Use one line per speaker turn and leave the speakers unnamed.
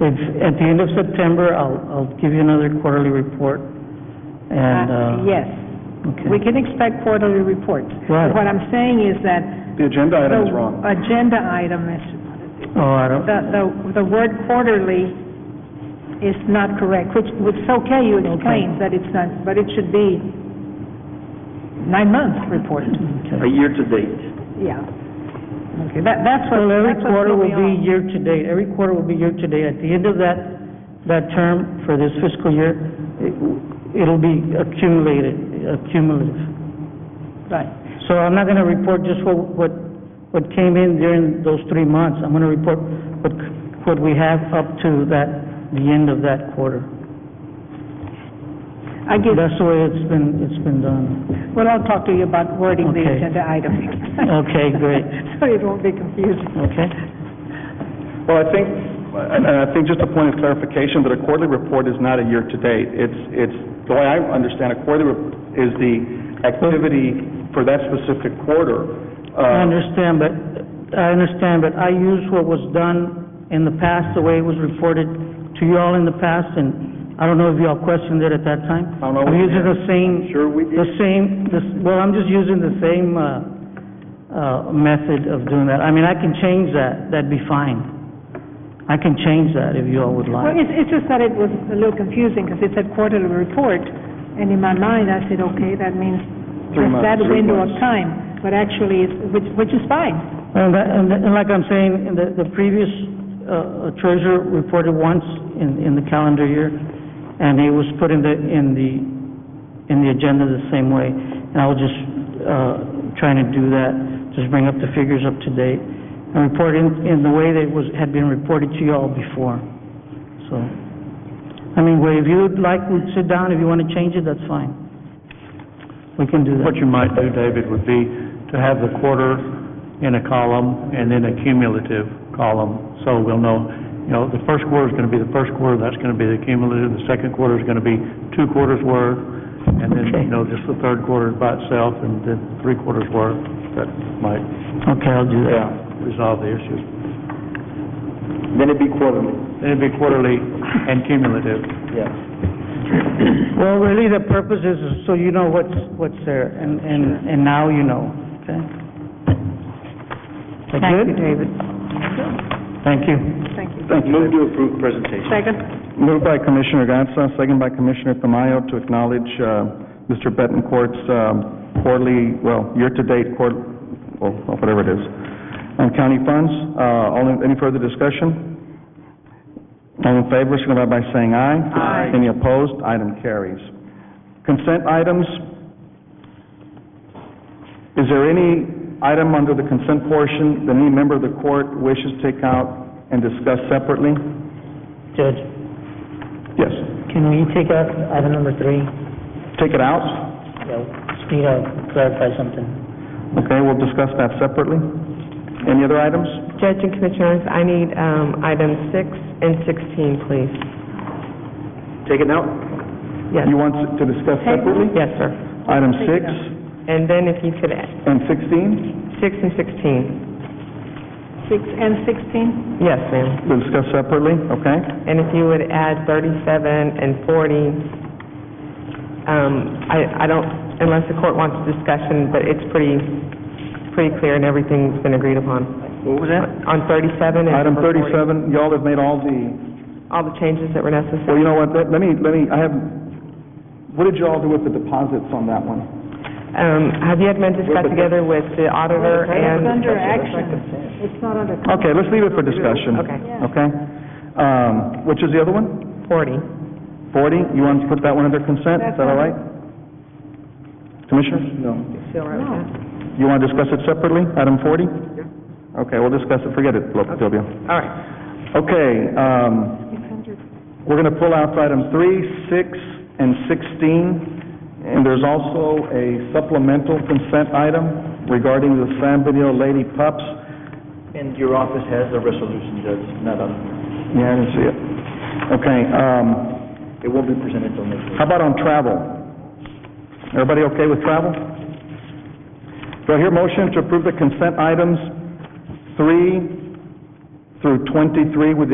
If, at the end of September, I'll, I'll give you another quarterly report, and,
Uh,
uh...
Yes, we can expect quarterly reports.
Right.
What I'm saying is that
The agenda item is wrong.
the agenda item is,
Oh, I don't,
the, the- the word quarterly is not correct, which, which is okay, you explained that it's not, but it should be nine-month report,
okay.
a year-to-date.
yeah. Okay, that, that's what,
Well, every
that's what's
quarter will be
going on.
year-to-date, every quarter will be year-to-date. At the end of that, that term for this fiscal year, it- it'll be accumulated, accumulative.
Right.
So I'm not gonna report just what, what, what came in during those three months. I'm gonna report what, what we have up to that, the end of that quarter.
I give,
That's the way it's been, it's been done.
well, I'll talk to you about wording the
Okay.
agenda item.
Okay, great.
So it won't be confusing.
Okay?
Well, I think, and and I think just a point of clarification, that a quarterly report is not a year-to-date. It's, it's, the way I understand a quarterly report is the activity for that specific quarter.
I
Uh,
understand, but, I understand, but I use what was done in the past, the way it was reported to you all in the past, and I don't know if you all questioned it at that time.
I don't know
I'm
what you
using the same.
Sure we did.
The same, this, well, I'm just using the same, uh, uh, method of doing that. I mean, I can change that, that'd be fine. I can change that if you all would
Well,
like.
it's, it's just that it was a little confusing, because it said quarterly report, and in my mind, I said, okay, that means
Three
just
months,
that
three
window of
months.
time, but actually, it's- which, which is fine.
And that, and that- and like I'm saying, in the, the previous, uh, treasurer reported once in, in the calendar year, and it was put in the, in the, in the agenda the same way. And I was just, uh, trying to do that, just bring up the figures up to date, and report in, in the way that it was, had been reported to you all before, so. I mean, well, if you'd like, we'd sit down, if you wanna change it, that's fine. We can do that.
What you might do, David, would be to have the quarter in a column and then a cumulative column, so we'll know, you know, the first quarter's gonna be the first quarter, that's gonna be the cumulative, the second quarter's gonna be two quarters' worth, and then, you know, just the third quarter by itself, and then three quarters' worth, that might
Okay, I'll do that.
Yeah,
resolve the issue.
Then it'd be quarterly.
Then it'd be quarterly and cumulative.
Yes.
Well, really, the purpose is so you know what's, what's there, and, and, and now you know, okay? Is that
Thank you,
good?
David.
Thank you.
Thank you.
thank you.
Move to approve presentation.
Second?
Moved by Commissioner Gatsa, second by Commissioner Tamayo to acknowledge uh, Mr. Betancourt's um, quarterly, well, year-to-date court, well, whatever it is, on county funds. Uh, All, in- any further discussion? All in favor, signify by saying aye. Aye. Any opposed? Item carries. Consent items. Is there any item under the consent portion that any member of the court wishes to take out and discuss separately?
Judge,
Yes.
can we take out item number three?
Take it out?
Yeah, Just need to clarify something.
Okay, we'll discuss that separately. Any other items?
Judge and Commissioners, I need um, items six and 16, please.
Take it out?
Yes,
You want to discuss separately?
yes, sir.
Item six
And then if you could, add
and sixteen,
six and 16.
Six and sixteen?
Yes, ma'am.
we'll discuss separately, okay?
And if you would add 37 and 40, um, I I don't, unless the court wants discussion, but it's pretty, pretty clear and everything's been agreed upon.
What was that?
On 37 and...
Item
number 40,
thirty-seven, y'all have made all the,
All the changes that were
well,
necessary.
you know what, let let me, let me, I have, what did y'all do with the deposits on that one?
Um, Have you had men discuss together with the auditor
It's
and...
under action. It's not under,
Okay, let's leave it for discussion.
Okay.
Okay? Um, which is the other one?
40.
Forty, you want to put that one under consent, is that all right? Commissioner? No. You want to discuss it separately, item forty? Yeah. Okay, we'll discuss it, forget it, Lopez Tobio.
All right.
Okay, um, we're going to pull out item three, six, and sixteen, and there's also a supplemental consent item regarding the San Benito Lady Pups.
And your office has the resolution, Judge, not on,
Yeah, I didn't see it. Okay, um,
it won't be presented till next week.
how about on travel? Everybody okay with travel? Do I hear motion to approve the consent items three through twenty-three with the